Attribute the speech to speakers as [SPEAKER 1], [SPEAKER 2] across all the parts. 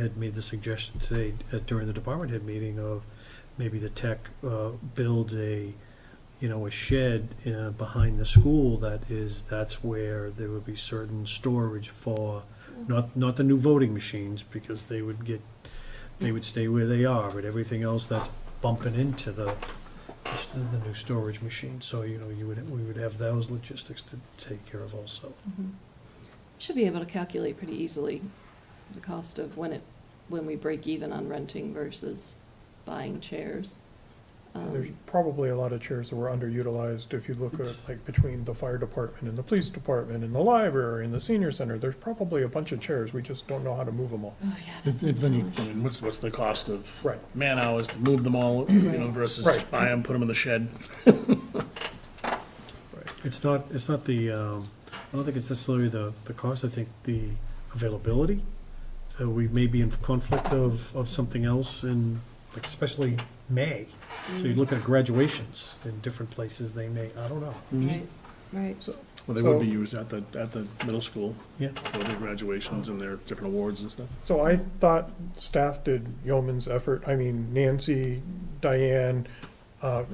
[SPEAKER 1] had made the suggestion today uh, during the department head meeting of maybe the tech uh, builds a, you know, a shed uh, behind the school that is, that's where there would be certain storage for, not, not the new voting machines, because they would get, they would stay where they are, but everything else that's bumping into the, the new storage machine. So, you know, you would, we would have those logistics to take care of also.
[SPEAKER 2] Mhm. Should be able to calculate pretty easily the cost of when it, when we break even on renting versus buying chairs. Um,
[SPEAKER 3] There's probably a lot of chairs that were underutilized. If you look at,
[SPEAKER 1] It's-
[SPEAKER 3] like, between the fire department and the police department and the library and the senior center, there's probably a bunch of chairs. We just don't know how to move them all.
[SPEAKER 2] Oh, yeah, that's
[SPEAKER 4] It's, it's,
[SPEAKER 2] a
[SPEAKER 4] any-
[SPEAKER 2] challenge.
[SPEAKER 4] I mean, what's, what's the cost of
[SPEAKER 3] Right.
[SPEAKER 4] man hours to move them all, you know, versus just
[SPEAKER 3] Right.
[SPEAKER 4] buy them, put them in the shed?
[SPEAKER 1] It's not, it's not the, um, I don't think it's necessarily the, the cost, I think the availability. Uh, we may be in conflict of, of something else in, like especially May. So you look at graduations in different places, they may, I don't know.
[SPEAKER 2] Right,
[SPEAKER 4] Mm-hmm.
[SPEAKER 2] right.
[SPEAKER 4] So- Well, they would be
[SPEAKER 3] So-
[SPEAKER 4] used at the, at the middle school
[SPEAKER 1] Yeah,
[SPEAKER 4] for their graduations and their different awards and stuff.
[SPEAKER 3] So I thought staff did yeoman's effort. I mean, Nancy, Diane, uh,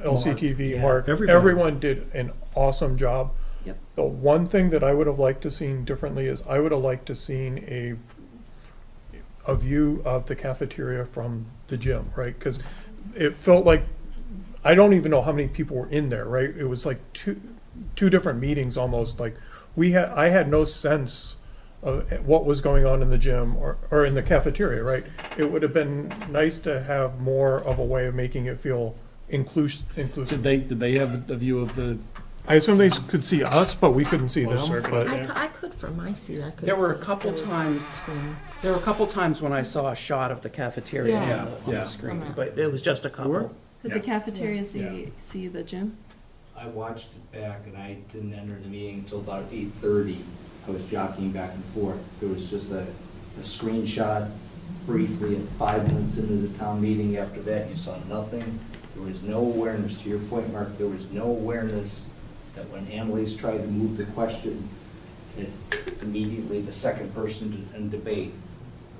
[SPEAKER 3] LCTV,
[SPEAKER 4] yeah.
[SPEAKER 3] Mark,
[SPEAKER 1] Everybody.
[SPEAKER 3] everyone did an awesome job.
[SPEAKER 2] Yep.
[SPEAKER 3] The one thing that I would have liked to seen differently is I would have liked to seen a, a view of the cafeteria from the gym, right? Because it felt like, I don't even know how many people were in there, right? It was like two, two different meetings almost, like, we had, I had no sense of what was going on in the gym or, or in the cafeteria, right? It would have been nice to have more of a way of making it feel inclus-
[SPEAKER 4] Did
[SPEAKER 3] inclusive.
[SPEAKER 4] they, did they have a view of the,
[SPEAKER 3] I assume they could see us, but we couldn't see
[SPEAKER 4] Well,
[SPEAKER 3] them,
[SPEAKER 4] circle.
[SPEAKER 3] but
[SPEAKER 5] I, cou- I could from my seat. I could.
[SPEAKER 6] There were a
[SPEAKER 5] see.
[SPEAKER 6] couple
[SPEAKER 5] There was a
[SPEAKER 6] times-
[SPEAKER 5] screen.
[SPEAKER 6] There were a couple times when I saw a shot of the cafeteria on
[SPEAKER 5] Yeah.
[SPEAKER 6] the- on
[SPEAKER 4] Yeah.
[SPEAKER 6] the screen, but it was just a couple.
[SPEAKER 2] Could the
[SPEAKER 4] Yeah.
[SPEAKER 2] cafeteria
[SPEAKER 4] Yeah.
[SPEAKER 2] see, see the gym?
[SPEAKER 7] I watched it back and I didn't enter the meeting until about eight thirty. I was jockeying back and forth. There was just a, a screenshot briefly at five minutes into the town meeting. After that, you saw nothing. There was no awareness, to your point, Mark, there was no awareness that when Annalise tried to move the question, that immediately the second person to- in debate,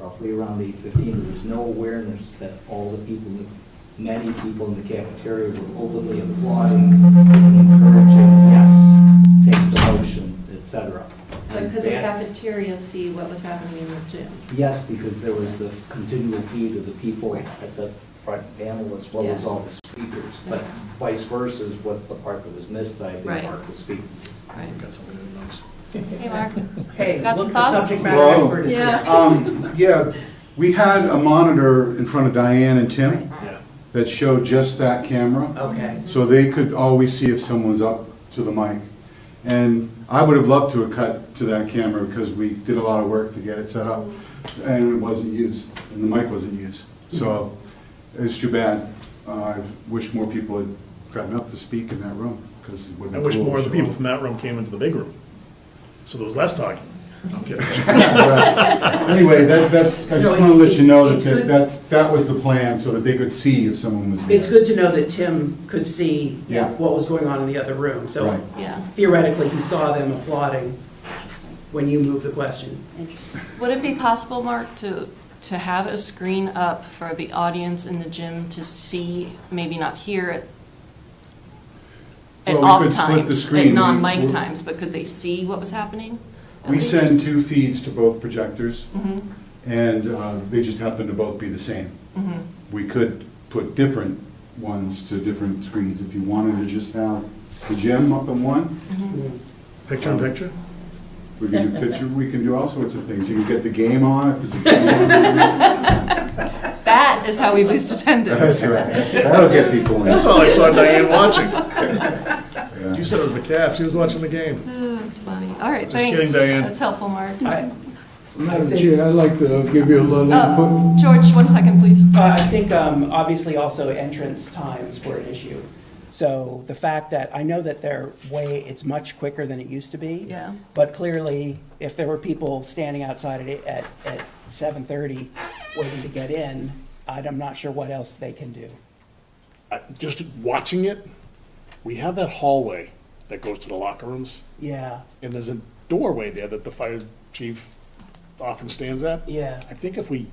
[SPEAKER 7] roughly around eight fifteen, there was no awareness that all the people, many people in the cafeteria were overly applauding, encouraging, yes, take the motion, et cetera.
[SPEAKER 2] But
[SPEAKER 7] And
[SPEAKER 2] could the
[SPEAKER 7] that-
[SPEAKER 2] cafeteria see what was happening in the gym?
[SPEAKER 7] Yes, because there was the continual feed of the people at the front panel as well as
[SPEAKER 2] Yeah.
[SPEAKER 7] all the speakers. But vice versa is what's the part that was missed that I think
[SPEAKER 2] Right.
[SPEAKER 7] Mark was speaking to.
[SPEAKER 2] Right.
[SPEAKER 4] got something in the notes?
[SPEAKER 2] Hey, Mark.
[SPEAKER 6] Hey,
[SPEAKER 2] Got some
[SPEAKER 6] look,
[SPEAKER 2] thoughts?
[SPEAKER 6] the subject matter
[SPEAKER 8] Whoa.
[SPEAKER 6] expert is here.
[SPEAKER 2] Yeah.
[SPEAKER 8] Um, yeah, we had a monitor in front of Diane and Tim
[SPEAKER 4] Yeah.
[SPEAKER 8] that showed just that camera,
[SPEAKER 6] Okay.
[SPEAKER 8] so they could always see if someone's up to the mic. And I would have loved to have cut to that camera because we did a lot of work to get it set up, and it wasn't used, and the mic wasn't used. So it's too bad. Uh, I wish more people had gotten up to speak in that room, because it would
[SPEAKER 4] I
[SPEAKER 8] have been
[SPEAKER 4] wish
[SPEAKER 8] cool to
[SPEAKER 4] more of the
[SPEAKER 8] show.
[SPEAKER 4] people from that room came into the big room, so there was less talking. I'm kidding.
[SPEAKER 8] Anyway, that, that's, I
[SPEAKER 6] No,
[SPEAKER 8] just want to
[SPEAKER 6] it's-
[SPEAKER 8] let you know
[SPEAKER 6] it's-
[SPEAKER 8] that,
[SPEAKER 6] it's
[SPEAKER 8] that,
[SPEAKER 6] good.
[SPEAKER 8] that's- that was the plan, so that they could see if someone was there.
[SPEAKER 6] It's good to know that Tim could see
[SPEAKER 8] Yeah.
[SPEAKER 6] what was going on in the other room, so
[SPEAKER 8] Right.
[SPEAKER 2] Yeah,
[SPEAKER 6] theoretically, he saw them applauding when you moved the question.
[SPEAKER 2] Would it be possible, Mark, to, to have a screen up for the audience in the gym to see, maybe not hear it at
[SPEAKER 8] Well, we
[SPEAKER 2] off
[SPEAKER 8] could split the
[SPEAKER 2] times,
[SPEAKER 8] screen.
[SPEAKER 2] at
[SPEAKER 8] We-
[SPEAKER 2] non-mic
[SPEAKER 8] we're-
[SPEAKER 2] times, but could they see what was happening? at
[SPEAKER 8] We
[SPEAKER 2] least?
[SPEAKER 8] send two feeds to both projectors,
[SPEAKER 6] Mm-hmm.
[SPEAKER 8] and uh, they just happen to both be the same. We could put different ones to different screens if you wanted to just have the gym up on one.
[SPEAKER 4] Picture in picture?
[SPEAKER 8] We can do picture, we can do all sorts of things. You can get the game on if there's a game on.
[SPEAKER 2] That is how we boost attendance.
[SPEAKER 8] That's right. That'll get people in.
[SPEAKER 4] That's all I saw Diane watching. You
[SPEAKER 8] Yeah.
[SPEAKER 4] said it was the calf, she was watching the game.
[SPEAKER 2] Oh, That's funny. All right,
[SPEAKER 4] Just
[SPEAKER 2] thanks.
[SPEAKER 4] kidding, Diane.
[SPEAKER 2] That's helpful, Mark.
[SPEAKER 6] I,
[SPEAKER 9] Madam Chair, I'd like to give you a little input.
[SPEAKER 2] Uh, George, one second, please.
[SPEAKER 6] Uh, I think, um, obviously, also entrance times were an issue. So the fact that, I know that they're way, it's much quicker than it used to be.
[SPEAKER 2] Yeah.
[SPEAKER 6] But clearly, if there were people standing outside at, at, at seven thirty waiting to get in, I'd- I'm not sure what else they can do.
[SPEAKER 4] I- Just watching it, we have that hallway that goes to the locker rooms.
[SPEAKER 6] Yeah,
[SPEAKER 4] and there's a doorway there that the fire chief often stands at.
[SPEAKER 6] Yeah.
[SPEAKER 4] I think if we